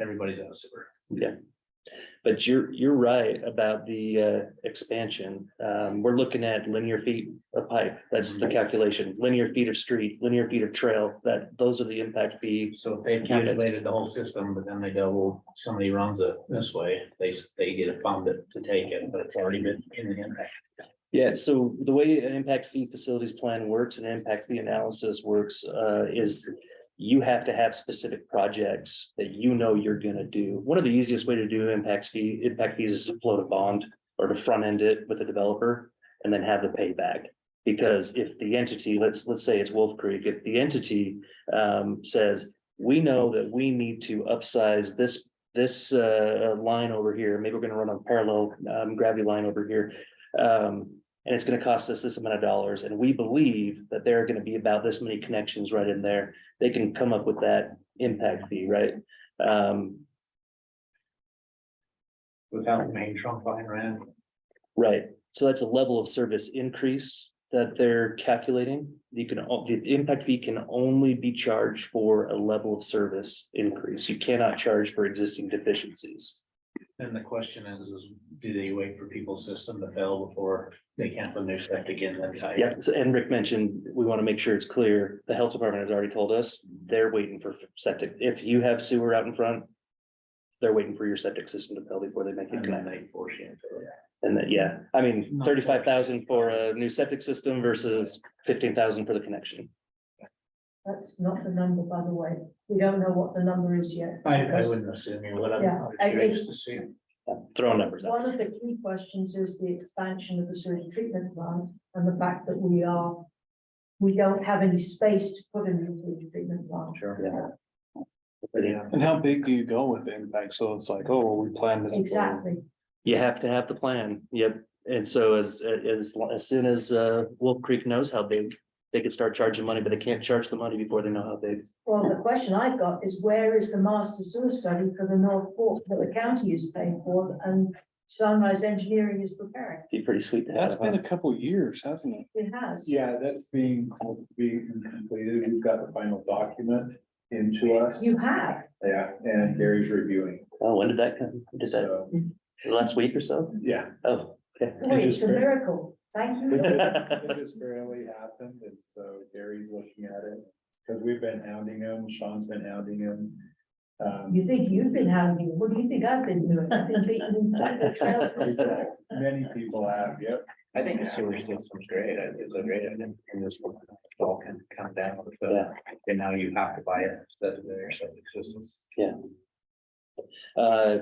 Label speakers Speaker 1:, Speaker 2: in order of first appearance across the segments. Speaker 1: everybody's out of sewer.
Speaker 2: But you're, you're right about the uh, expansion. Um, We're looking at linear feet of pipe. That's the calculation. Linear feet of street, linear feet of trail, that, those are the impact fee.
Speaker 1: So if they calculated the whole system, but then they go, well, somebody runs it this way, they, they get a fund to take it, but it's already been in the impact.
Speaker 2: Yeah, so the way an impact fee facilities plan works and impact fee analysis works uh, is you have to have specific projects that you know you're gonna do. One of the easiest way to do impacts fee, impact fees is to float a bond or to front end it with a developer and then have the payback. Because if the entity, let's, let's say it's Wolf Creek, if the entity um, says, we know that we need to upsize this, this uh, line over here, maybe we're gonna run a parallel um, gravity line over here. Um, and it's gonna cost us this amount of dollars, and we believe that there are gonna be about this many connections right in there. They can come up with that impact fee, right? Um,
Speaker 1: Without the main trunk line ran,
Speaker 2: right, so that's a level of service increase that they're calculating. You can, o- the impact fee can only be charged for a level of service increase. You cannot charge for existing deficiencies.
Speaker 1: then the question is, is do they wait for people's system to fail before they can't put new septic in then tight?
Speaker 2: Yeah, so- and Rick mentioned, we want to make sure it's clear. The health department has already told us they're waiting for septic. If you have sewer out in front. They're waiting for your septic system to fill before they make it
Speaker 1: And then
Speaker 2: connect.
Speaker 1: they force you into it.
Speaker 2: And that, yeah, I mean, thirty-five thousand for a new septic system versus fifteen thousand for the connection.
Speaker 3: That's not the number, by the way. We don't know what the number is yet.
Speaker 1: I, I wouldn't assume you would. I'm-
Speaker 3: Yeah, I
Speaker 1: I'm
Speaker 3: think-
Speaker 1: curious to see.
Speaker 2: Throwing numbers out.
Speaker 3: One of the key questions is the expansion of the sewage treatment plant and the fact that we are, we don't have any space to put in the sewage treatment plant.
Speaker 1: Sure.
Speaker 2: Yeah.
Speaker 1: Yeah.
Speaker 4: And how big do you go with the impact? So it's like, oh, we planned this.
Speaker 3: Exactly.
Speaker 2: You have to have the plan. Yep. And so as, as, as soon as, uh, Wolf Creek knows how big, they could start charging money, but they can't charge the money before they know how big.
Speaker 3: Well, the question I've got is where is the master sewer study for the North Fork that the county is paying for and Sunrise Engineering is preparing?
Speaker 2: Be pretty sweet to have.
Speaker 4: That's been
Speaker 2: huh?
Speaker 4: a couple years, hasn't it?
Speaker 3: It has.
Speaker 5: Uh-huh. Yeah, that's being, being completed. We've got the final document into us.
Speaker 3: You have.
Speaker 5: Yeah, and Gary's reviewing.
Speaker 2: Oh, when did that come? Did that
Speaker 5: So,
Speaker 2: last week or so?
Speaker 5: yeah.
Speaker 2: Oh, okay.
Speaker 3: Boy, it's
Speaker 5: just
Speaker 3: a
Speaker 5: very-
Speaker 3: miracle. Thank you. Lord.
Speaker 5: It just barely happened and so Gary's looking at it because we've been hounding him. Sean's been hounding him. Um,
Speaker 3: You think you've been having, what do you think I've been doing? I've been beaten by the trail.
Speaker 5: many people have, yep.
Speaker 1: I think the sewer system's great. I- It's a great, idea, and this will all can come down. so-
Speaker 2: Yeah.
Speaker 1: And now you have to buy it. That's their septic system.
Speaker 2: Uh,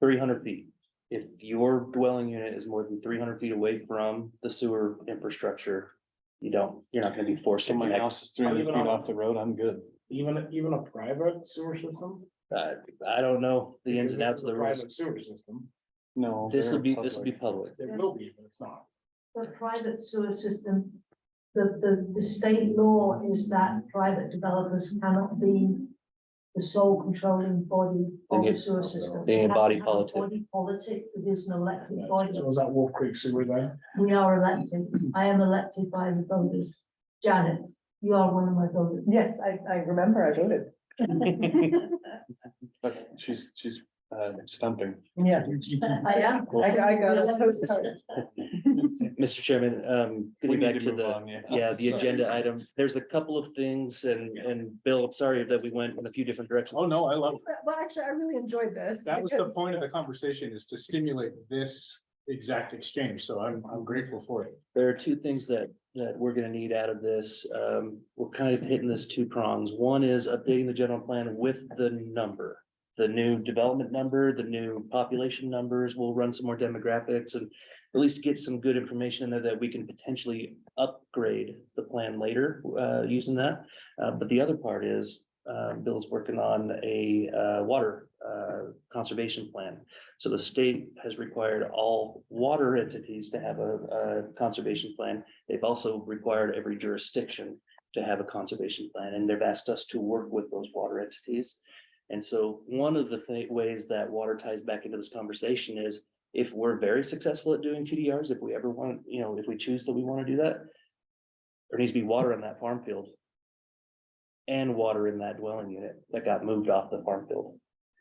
Speaker 2: three hundred feet. If your dwelling unit is more than three hundred feet away from the sewer infrastructure, you don't, you're not gonna be forced to
Speaker 4: So my
Speaker 2: connect.
Speaker 4: house is three hundred feet off the road, I'm good.
Speaker 6: Even, even a private sewer system?
Speaker 2: Uh, I don't know the ins and
Speaker 6: Because
Speaker 2: outs
Speaker 6: this is
Speaker 2: of the
Speaker 6: a
Speaker 2: rules.
Speaker 6: Private sewer system,
Speaker 4: No.
Speaker 2: This
Speaker 4: they're
Speaker 2: would be, this would be
Speaker 4: public.
Speaker 2: public.
Speaker 6: it will be, but it's not.
Speaker 3: The private sewer system, the, the, the state law is that private developers cannot be the sole controlling body of
Speaker 2: They
Speaker 3: the
Speaker 2: get-
Speaker 3: sewer system.
Speaker 2: they
Speaker 3: It has to
Speaker 2: embody
Speaker 3: have a
Speaker 2: politic.
Speaker 3: Body politic, it is an elected body.
Speaker 6: So is that Wolf Creek sewer there?
Speaker 3: We are elected. I am elected by the voters. Janet, you are one of my voters.
Speaker 7: Yes, I, I remember I voted.
Speaker 4: That's, she's, she's, uh, stumping.
Speaker 7: Yeah,
Speaker 3: I am.
Speaker 7: I, I got a postcard.
Speaker 2: Mr. Chairman, um,
Speaker 4: We
Speaker 2: getting
Speaker 4: need
Speaker 2: back
Speaker 4: to
Speaker 2: to
Speaker 4: move
Speaker 2: the,
Speaker 4: on, yeah.
Speaker 2: yeah, the
Speaker 4: Sorry.
Speaker 2: agenda item. There's a couple of things and, and Bill, I'm sorry that we went in a few different directions.
Speaker 4: Oh, no, I love,
Speaker 7: Well, actually, I really enjoyed this.
Speaker 6: That was the
Speaker 7: because-
Speaker 6: point of the conversation is to stimulate this exact exchange, so I'm, I'm grateful for it.
Speaker 2: There are two things that, that we're gonna need out of this. Um, we're kind of hitting this two prongs. One is updating the general plan with the number. The new development number, the new population numbers, we'll run some more demographics and at least get some good information in there that we can potentially upgrade the plan later, uh, using that. Uh, but the other part is, uh, Bill's working on a, uh, water, uh, conservation plan. So the state has required all water entities to have a, a conservation plan. They've also required every jurisdiction to have a conservation plan, and they've asked us to work with those water entities. And so one of the thi- ways that water ties back into this conversation is if we're very successful at doing TDRs, if we ever want, you know, if we choose that we want to do that, there needs to be water on that farm field and water in that dwelling unit that got moved off the farm field.